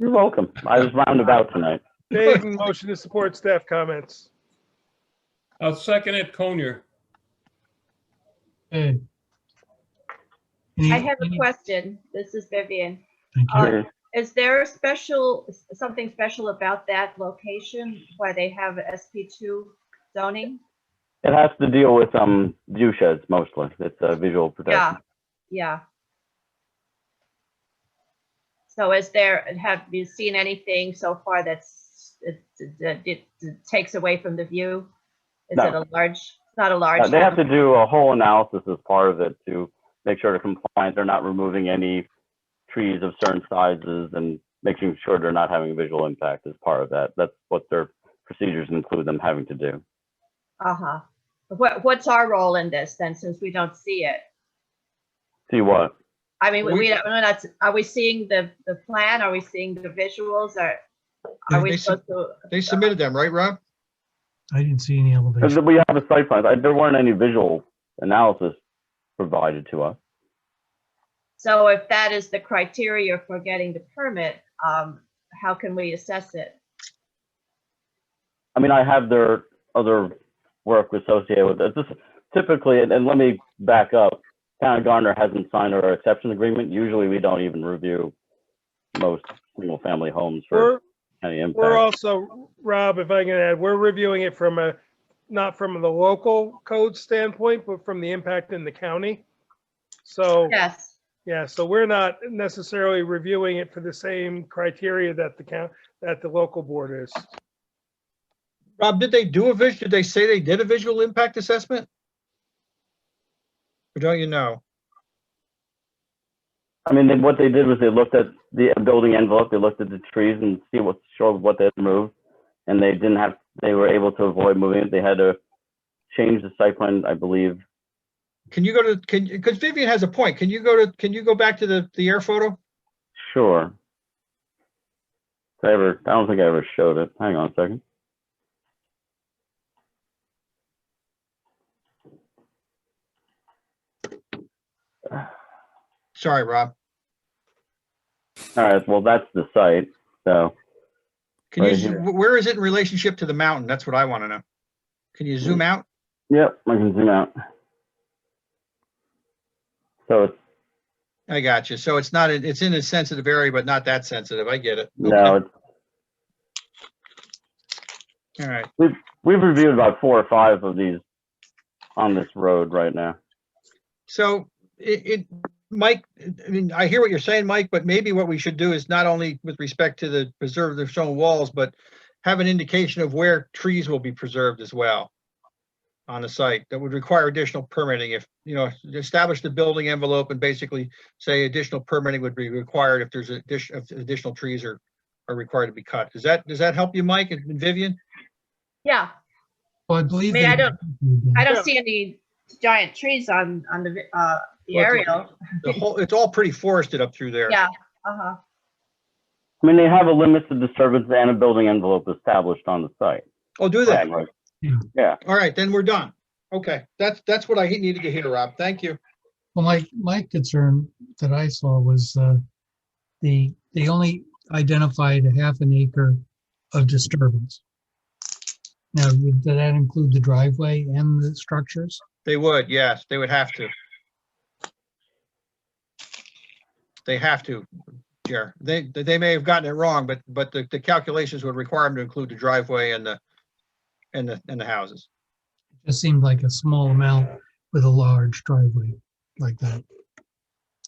You're welcome. I was roundabout tonight. Dayton, motion to support staff comments. I'll second it, Conyer. Okay. I Any- have a any- question. This is Vivian. Thank you. Uh, Is there a special, something special about that location, why they have SP2 zoning? It has to deal with, um, view sheds mostly. It's a visual Yeah, protection. yeah. So is there, have you seen anything so far that's, it, it- it- it takes away from the view? Is No. it a large, it's not a Uh, large? They have house? to do a whole analysis as part of it to make sure to comply. They're not removing any trees of certain sizes and making sure they're not having a visual impact as part of that. That's what their procedures include them having to do. Uh-huh. What, what's our role in this then, since we don't see it? See what? I mean, we, We- we don't, we're not, are we seeing the, the plan? Are we seeing the visuals or They- are we they sub- supposed to? They submitted them, right, Rob? I didn't see any elevation. We have a site plan. Uh, There weren't any visual analysis provided to us. So if that is the criteria for getting the permit, um, how can we assess it? I mean, I have their other work associated with it. This typically, and, and let me back up. Town of Garner hasn't signed our exception agreement. Usually, we don't even review most single-family homes for We're, any we're impact. also, Rob, if I can add, we're reviewing it from a, not from the local code standpoint, but from the impact in the county. So, Yes, yeah, so we're not necessarily reviewing it for the same criteria that the count, that the local board is. Rob, did they do a vis, did they say they did a visual impact assessment? Or don't you know? I mean, then what they did was they looked at the building envelope, they looked at the trees and see what, showed what they had moved. And they didn't have, they were able to avoid moving it. They had to change the site plan, I believe. Can you go to, can, because Vivian has a point. Can you go to, can you go back to the, the air photo? Sure. Did I ever, I don't think I ever showed it. Hang on a second. Sorry, Rob. All right, well, that's the site, so, Can you, Right zo- here. wh- where is it in relationship to the mountain? That's what I want to know. Can you Hmm. zoom out? yep, I can zoom out. So it's, I got you. So it's not, in- it's in a sensitive area, but not that sensitive. I get it. no, Okay. it's, All right. we've reviewed about four or five of these on this road right now. So it, it, Mike, I mean, I hear what you're saying, Mike, but maybe what we should do is not only with respect to the preserve the stone walls, but have an indication of where trees will be preserved as well on the site. That would require additional permitting if, you know, establish the building envelope and basically say additional permitting would be required if there's addition, if additional trees are, are required to be cut. Does that, does that help you, Mike and Vivian? yeah. Well, I believe. I mean, I they- I Yeah. don't see any giant trees on, on the, vi- uh, the Well, it's a- aerial. The whole, it's all pretty forested up through there. Yeah, uh-huh. I mean, they have a limits of disturbance and a building envelope established on the site. Oh, do that. Right, right. All right, then we're done. Okay, that's, that's what I needed to hear, Rob. Thank you. Well, my, my concern that I saw was, uh, the, they only identified a half an acre of disturbance. Now, would did that include the driveway and the structures? They would, yes, they would have to. They have to, Jer. They, they may have gotten it wrong, but, but the, the calculations would require them to include the driveway and the, and the, and the houses. It just seemed like a small amount with a large driveway like that.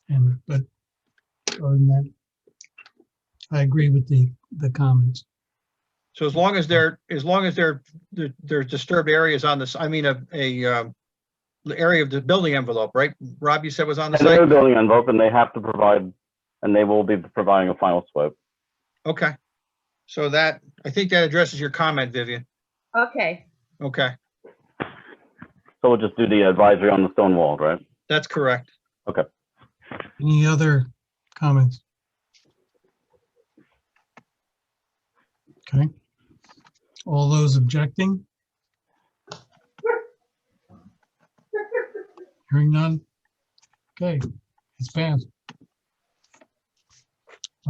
And, but, other than that, I agree with the, the comments. So as long as they're, as long as they're, there- there's disturbed areas on this, I mean, a, a, um, the area of the building envelope, right? Rob, you said was on the And they're a site? building envelope, and they have to provide, and they will be providing a final swipe. Okay. So that, I think that addresses your comment, Vivian. Okay, Okay, So we'll just do the advisory on the stone wall, right? that's correct. Any other comments? Okay. All those objecting? Hearing none? Okay, it's passed.